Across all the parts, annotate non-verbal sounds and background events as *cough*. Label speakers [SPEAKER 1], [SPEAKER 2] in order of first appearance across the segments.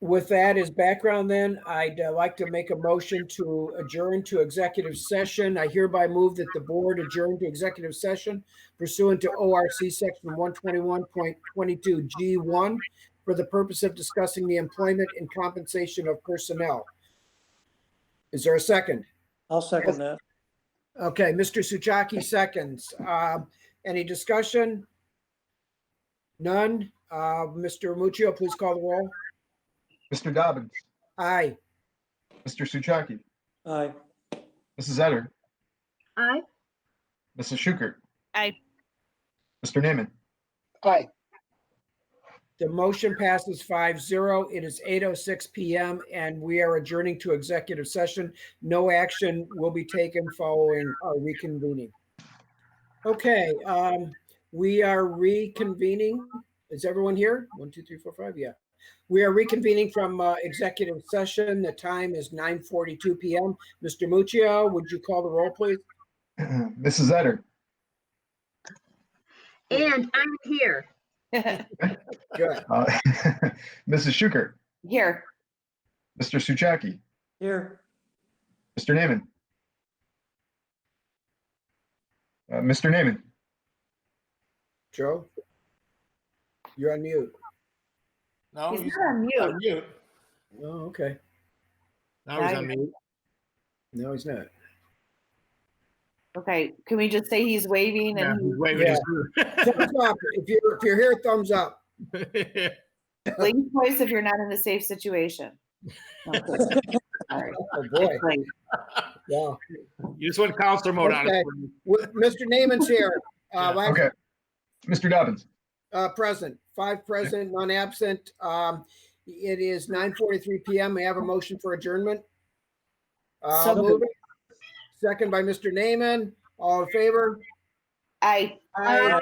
[SPEAKER 1] With that as background, then, I'd uh, like to make a motion to adjourn to executive session. I hereby move that the board adjourn to executive session pursuant to ORC Section 121.22G1 for the purpose of discussing the employment and compensation of personnel. Is there a second?
[SPEAKER 2] I'll second that.
[SPEAKER 1] Okay, Mr. Suchaki seconds. Uh, Any discussion? None. Uh, Mr. Muccio, please call the roll.
[SPEAKER 3] Mr. Dobbins,
[SPEAKER 1] Aye.
[SPEAKER 3] Mr. Suchaki,
[SPEAKER 2] Aye.
[SPEAKER 3] Mrs. Etter,
[SPEAKER 4] Aye.
[SPEAKER 3] Mrs. Schukert.
[SPEAKER 5] Aye.
[SPEAKER 3] Mr. *clears throat* Naaman,
[SPEAKER 1] Aye. The motion passes 5-0. It is eight oh six PM and we are adjourning to executive session. No action will be taken following our reconvening. Okay, um, we are reconvening. Is everyone here? One, two, three, four, five, yeah. We are reconvening from uh, executive session. The time is nine forty-two PM. Mr. Muccio, would you call the roll, please?
[SPEAKER 3] Mrs. Etter,
[SPEAKER 4] And I'm here.
[SPEAKER 1] Good.
[SPEAKER 3] uh, *laughs* Mrs. Schukert,
[SPEAKER 5] Here.
[SPEAKER 3] Mr. Suchaki,
[SPEAKER 2] Here.
[SPEAKER 3] Mr. Naaman. Uh, Mr. Naaman,
[SPEAKER 1] Joe? You're on mute.
[SPEAKER 6] No,
[SPEAKER 5] He's
[SPEAKER 6] he's
[SPEAKER 5] not on
[SPEAKER 6] on
[SPEAKER 5] mute.
[SPEAKER 6] mute.
[SPEAKER 1] Oh, okay.
[SPEAKER 6] Now he's
[SPEAKER 5] Now
[SPEAKER 6] on
[SPEAKER 5] you're-
[SPEAKER 6] mute.
[SPEAKER 1] No, he's not.
[SPEAKER 5] Okay, can we just say he's waving
[SPEAKER 6] Yeah,
[SPEAKER 5] and
[SPEAKER 6] he's waving his
[SPEAKER 1] thumbs up if you're if you're here thumbs up
[SPEAKER 5] leave your voice if you're not in a safe situation? Okay. All right,
[SPEAKER 1] oh boy
[SPEAKER 5] great.
[SPEAKER 1] yeah
[SPEAKER 6] *laughs* You just went counselor mode on
[SPEAKER 1] Okay.
[SPEAKER 6] it.
[SPEAKER 1] With- mr naaman's here uh,
[SPEAKER 6] Yeah.
[SPEAKER 1] last-
[SPEAKER 3] okay. Mr. Dobbins,
[SPEAKER 1] uh present five present none absent um it is 9 43 p.m i have a motion for adjournment uh,
[SPEAKER 5] So
[SPEAKER 1] move it. second by mr naaman all in favor
[SPEAKER 5] Aye.
[SPEAKER 4] Aye.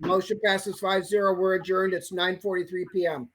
[SPEAKER 1] motion passes 5-0 we're adjourned it's 9 43 p.m